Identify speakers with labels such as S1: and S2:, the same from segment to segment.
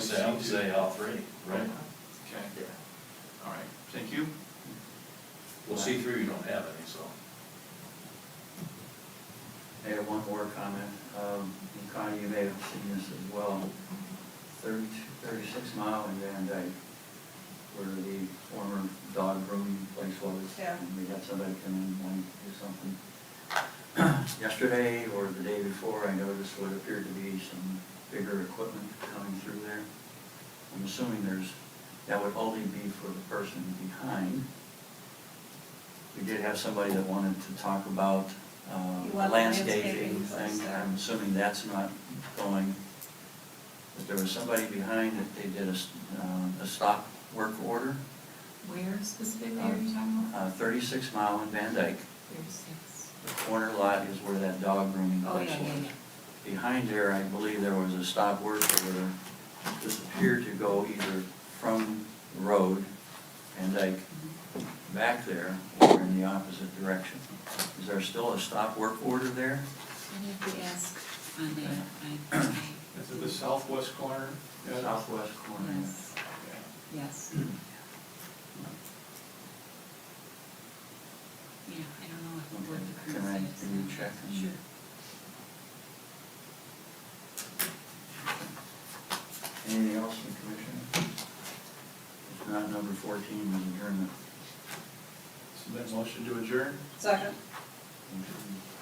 S1: say, I would say all three,
S2: Uh-huh.
S1: right?
S2: Okay, all right, thank you.
S1: Well, C three, we don't have any, so.
S3: I have one more comment. Um, and Connie, you may have seen this as well. 32 36 mile in Van Dyke, where the former dog grooming place was.
S4: Yeah.
S3: and We had somebody come in and wanted to do something. Yesterday or the day before, I noticed what appeared to be some bigger equipment coming through there. I'm assuming there's, that would only be for the person behind. We did have somebody that wanted to talk about uh,
S4: You want the
S3: landscaping
S4: landscaping first,
S3: thing.
S4: yeah.
S3: I'm assuming that's not going. But there was somebody behind that they did a, s- uh, a stop work order,
S5: Where specifically are you talking about?
S3: uh, thirty-six mile in Van Dyke.
S5: Thirty-six.
S3: The corner lot is where that dog grooming
S5: Oh,
S3: place
S5: yeah, yeah,
S3: was.
S5: yeah.
S3: Behind there, I believe there was a stop work order. This appeared to go either from the road, Van Dyke, back there, or in the opposite direction. Is there still a stop work order there?
S5: I need to ask on that, I, I,
S2: Is it the southwest corner? Yeah.
S3: Southwest corner.
S5: yes,
S2: Okay.
S5: yes. Yeah, I don't know what the word the
S3: Can I-
S5: currency is.
S3: can you check and-
S5: Sure.
S3: Anything else from commission? If not, number fourteen is adjournment.
S2: So that motion to adjourn?
S4: Second,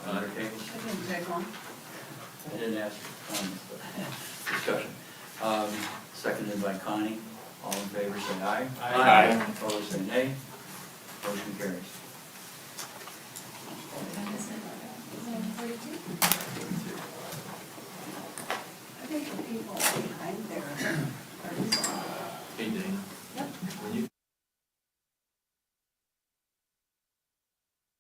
S3: Under tables.
S4: I didn't take one.
S3: I didn't ask for comments, but discussion. Um, Seconded by Connie. All in favor, say aye.
S2: Aye. Aye.
S3: Opposed, say nay. Motion carries.
S5: That is it. Is that forty-two?
S4: I think the people behind there